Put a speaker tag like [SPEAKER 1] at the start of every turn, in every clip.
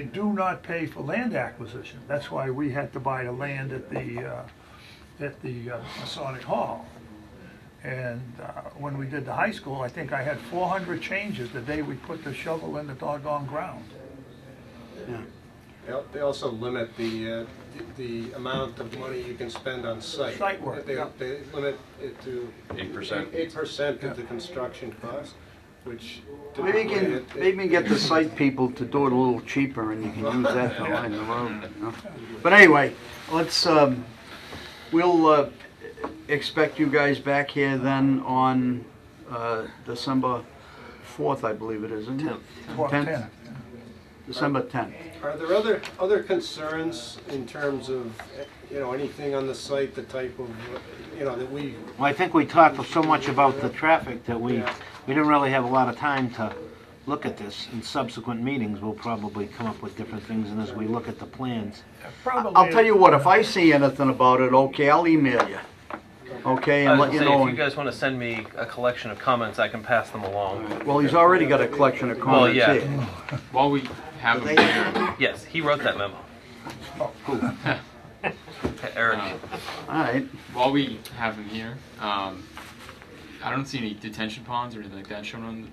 [SPEAKER 1] They do not pay for land acquisition. That's why we had to buy the land at the, uh, at the uh, Masonic Hall. And uh, when we did the high school, I think I had 400 changes the day we put the shovel in the doggone ground.
[SPEAKER 2] They al- They also limit the, uh, the the amount of money you can spend on site.
[SPEAKER 1] Site work,
[SPEAKER 2] They,
[SPEAKER 1] yeah.
[SPEAKER 2] they limit it to.
[SPEAKER 3] 8%.
[SPEAKER 2] Eight percent
[SPEAKER 1] Yeah.
[SPEAKER 2] of the construction cost, which.
[SPEAKER 4] Maybe we
[SPEAKER 2] typically
[SPEAKER 4] can,
[SPEAKER 2] it- it-
[SPEAKER 4] maybe we can get the site people to do it a little cheaper and you can use that to line the road, you know? But anyway, let's, um, we'll, uh, expect you guys back here then on, uh, December fourth, I believe it is, isn't it?
[SPEAKER 1] Well, 10.
[SPEAKER 4] December tenth.
[SPEAKER 2] Are there other, other concerns in terms of, eh, you know, anything on the site, the type of, you know, that we,
[SPEAKER 5] Well, I think we talked so much about the traffic that we,
[SPEAKER 2] Yeah.
[SPEAKER 5] we didn't really have a lot of time to look at this. In subsequent meetings, we'll probably come up with different things, and as we look at the plans,
[SPEAKER 1] Probably-
[SPEAKER 4] I'll tell you what, if I see anything about it, okay, I'll email you, okay,
[SPEAKER 6] I
[SPEAKER 4] and
[SPEAKER 6] was
[SPEAKER 4] let
[SPEAKER 6] gonna
[SPEAKER 4] you
[SPEAKER 6] say,
[SPEAKER 4] know.
[SPEAKER 6] if you guys want to send me a collection of comments, I can pass them along.
[SPEAKER 4] Well, he's already got a collection of
[SPEAKER 6] Well,
[SPEAKER 4] comments
[SPEAKER 6] yeah.
[SPEAKER 4] here.
[SPEAKER 3] While we have him here,
[SPEAKER 6] Yes, he wrote that memo. Eric,
[SPEAKER 4] All right,
[SPEAKER 3] while we have him here, um, I don't see any detention ponds or anything like that shown on.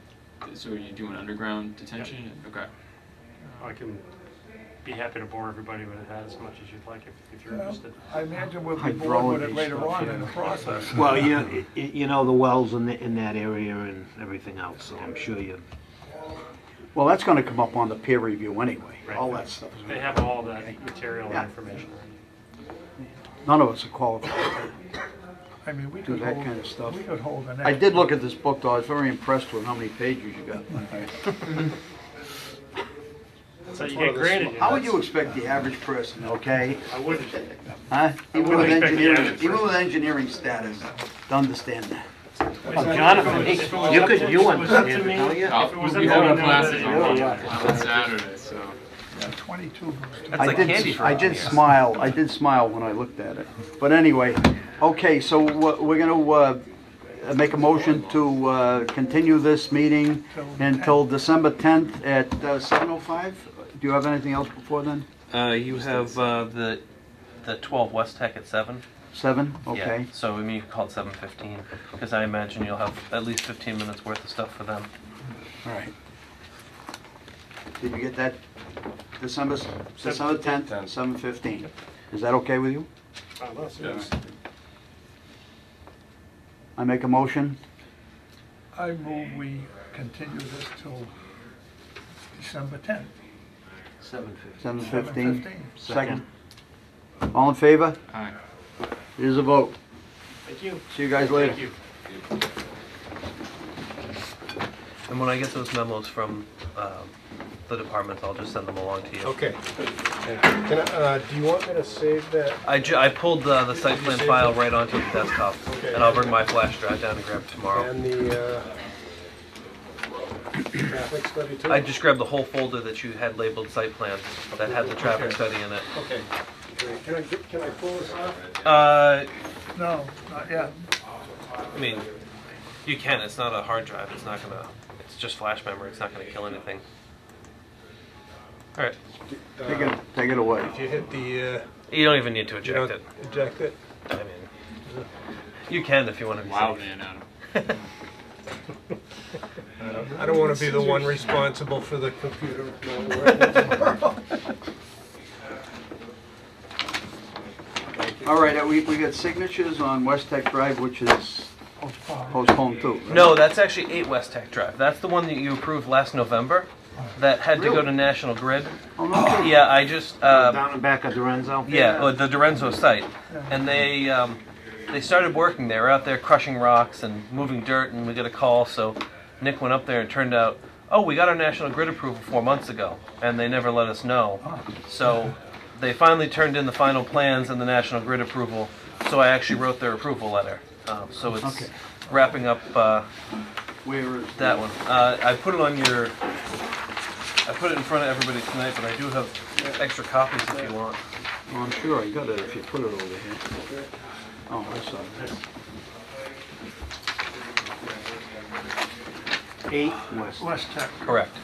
[SPEAKER 3] The, so are you doing underground detention? Okay.
[SPEAKER 7] I can be happy to bore everybody with that as much as you'd like if, if you're interested.
[SPEAKER 1] I imagine we'll be bored with it
[SPEAKER 4] Hydrology
[SPEAKER 1] later
[SPEAKER 4] stuff,
[SPEAKER 1] on in
[SPEAKER 4] yeah.
[SPEAKER 1] the process.
[SPEAKER 5] well, you, know, y- you know the wells in, the- in that area and everything else, so I'm sure you,
[SPEAKER 4] well, that's gonna come up on the peer review anyway,
[SPEAKER 7] Right.
[SPEAKER 4] all that stuff. is
[SPEAKER 7] They
[SPEAKER 4] gonna-
[SPEAKER 7] have all that material
[SPEAKER 4] Yeah.
[SPEAKER 7] and information.
[SPEAKER 4] None of us are qualified.
[SPEAKER 1] I mean, we could
[SPEAKER 4] that
[SPEAKER 1] hold,
[SPEAKER 4] kind of stuff.
[SPEAKER 1] we could hold an.
[SPEAKER 4] I did look at this book, though, I was very impressed with how many pages you got.
[SPEAKER 7] So you
[SPEAKER 2] one
[SPEAKER 7] get
[SPEAKER 2] of the
[SPEAKER 7] graded.
[SPEAKER 4] How would you expect the average person, okay,
[SPEAKER 7] I wouldn't.
[SPEAKER 4] huh? Even
[SPEAKER 7] wouldn't
[SPEAKER 4] with
[SPEAKER 7] expect the
[SPEAKER 4] engineering,
[SPEAKER 7] average
[SPEAKER 4] even with engineering status, to understand that.
[SPEAKER 7] Jonathan,
[SPEAKER 5] you could, you
[SPEAKER 7] was up to
[SPEAKER 5] understand
[SPEAKER 7] me,
[SPEAKER 5] it, don't you?
[SPEAKER 3] Uh,
[SPEAKER 7] if it was up to
[SPEAKER 3] we
[SPEAKER 7] me,
[SPEAKER 3] hold
[SPEAKER 7] I
[SPEAKER 3] our
[SPEAKER 7] know
[SPEAKER 3] classes
[SPEAKER 7] that-
[SPEAKER 3] on,
[SPEAKER 4] yeah.
[SPEAKER 3] on Saturday, so
[SPEAKER 1] Twenty-two.
[SPEAKER 6] that's
[SPEAKER 4] I
[SPEAKER 6] like
[SPEAKER 4] did-
[SPEAKER 6] candy for
[SPEAKER 4] I
[SPEAKER 6] all
[SPEAKER 4] did
[SPEAKER 6] of you.
[SPEAKER 4] smile, I did smile when I looked at it. But anyway, okay, so we're we're gonna uh, make a motion to uh, continue this meeting until December 10th at uh, 7:05? Do you have anything else before then?
[SPEAKER 6] uh, you have uh, the the 12 West Tech at seven.
[SPEAKER 4] 7,
[SPEAKER 6] Yeah,
[SPEAKER 4] okay.
[SPEAKER 6] so I mean, you could call it 7:15 because I imagine you'll have at least 15 minutes worth of stuff for them.
[SPEAKER 4] All right. Did you get that? December, s- December 10th, 7:15. Is that okay with you? I make a motion?
[SPEAKER 1] I move we continue this till December tenth.
[SPEAKER 5] Seven fifty.
[SPEAKER 4] 7:15?
[SPEAKER 1] 7:15.
[SPEAKER 4] Second. All in favor?
[SPEAKER 3] aye.
[SPEAKER 4] It is a vote.
[SPEAKER 7] Thank you.
[SPEAKER 4] See you guys later.
[SPEAKER 7] Thank you.
[SPEAKER 6] And when I get those memos from um, the departments, I'll just send them along to you.
[SPEAKER 2] okay. Can I, uh, do you want me to save that?
[SPEAKER 6] I, ju- I pulled the, the site plan file right onto the desktop,
[SPEAKER 2] Okay.
[SPEAKER 6] and I'll bring my flash drive down and grab it tomorrow.
[SPEAKER 2] And the, uh, traffic study too?
[SPEAKER 6] I just grabbed the whole folder that you had labeled site plan that had the traffic
[SPEAKER 2] Okay.
[SPEAKER 6] study in it.
[SPEAKER 2] Okay, great. Can I, get- can I pull this off?
[SPEAKER 6] Uh,
[SPEAKER 1] No, not yet.
[SPEAKER 6] I mean, you can. It's not a hard drive. It's not gonna. It's just flash memory. It's not gonna kill anything. All right.
[SPEAKER 4] Take it, take it away.
[SPEAKER 2] If you hit the, uh,
[SPEAKER 6] You don't even need to
[SPEAKER 2] you
[SPEAKER 6] eject
[SPEAKER 2] don't
[SPEAKER 6] it.
[SPEAKER 2] eject it?
[SPEAKER 6] I mean, you can if you want to be
[SPEAKER 3] Wow,
[SPEAKER 6] safe.
[SPEAKER 3] man, Adam.
[SPEAKER 2] I don't want to be the one responsible for the computer. not working.
[SPEAKER 4] All right, uh, we, we got signatures on West Tech Drive, which is postponed too. right?
[SPEAKER 6] No, that's actually 8 West Tech Drive. That's the one that you approved last November that had to go to
[SPEAKER 4] Really?
[SPEAKER 6] National Grid.
[SPEAKER 4] Oh, no.
[SPEAKER 6] Yeah, I just uh,
[SPEAKER 5] Down and back of Lorenzo?
[SPEAKER 6] Yeah, or the Dorenzo site. And they um, they started working. They were out there crushing rocks and moving dirt, and we got a call. So Nick went up there and turned out, oh, we got our National Grid approval four months ago, and they never let us know. So they finally turned in the final plans and the National Grid approval. So I actually wrote their approval letter. Um, so it's
[SPEAKER 4] Okay.
[SPEAKER 6] wrapping up uh,
[SPEAKER 4] Where is?
[SPEAKER 6] that one. Uh, I put it on your. I put it in front of everybody tonight, but I do have extra copies if you want.
[SPEAKER 4] Oh, I'm sure I got it if you put it over here. Oh, I saw that.
[SPEAKER 5] Eight west.
[SPEAKER 1] West Tech.
[SPEAKER 6] Correct.